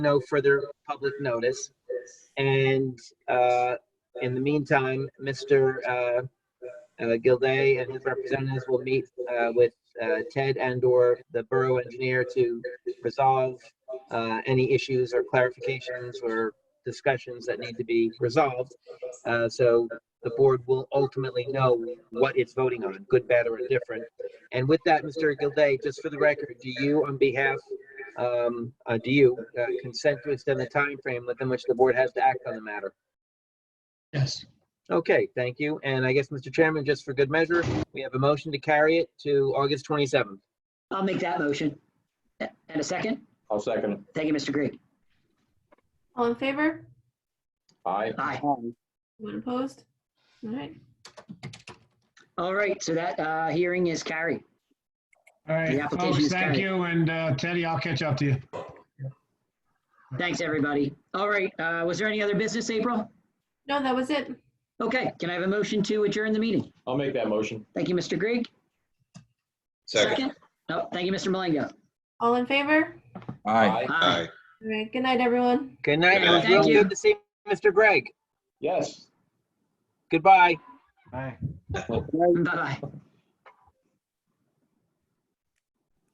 no further public notice. And uh, in the meantime, Mr. uh, uh, Gilday and his representatives will meet uh, with uh, Ted and/or the borough engineer to resolve uh, any issues or clarifications or discussions that need to be resolved. Uh, So the board will ultimately know what it's voting on, good, bad, or indifferent. And with that, Mr. Gilday, just for the record, do you, on behalf um, uh, do you uh, consent to extend the time frame within which the board has to act on the matter? Yes, Okay, thank you. And I guess, Mr. Chairman, just for good measure, we have a motion to carry it to August 27th. I'll make that motion. And a second? I'll second it. Thank you, Mr. Greg. All in favor? Aye. Aye. Anyone opposed? All right. All right, so that uh, hearing is carried. all right, The application folks, is thank carried. you, and uh, Teddy, I'll catch up to you. Thanks, everybody. All right, uh, was there any other business, April? No, that was it. Okay, can I have a motion to adjourn the meeting? I'll make that motion. Thank you, Mr. Greg. Second. No, thank you, Mr. Malengo. All in favor? Aye. Aye. All right. Good night, everyone. Good night. It was Thank real you. good to see Mr. Gregg. Yes. Goodbye. Bye. Bye-bye.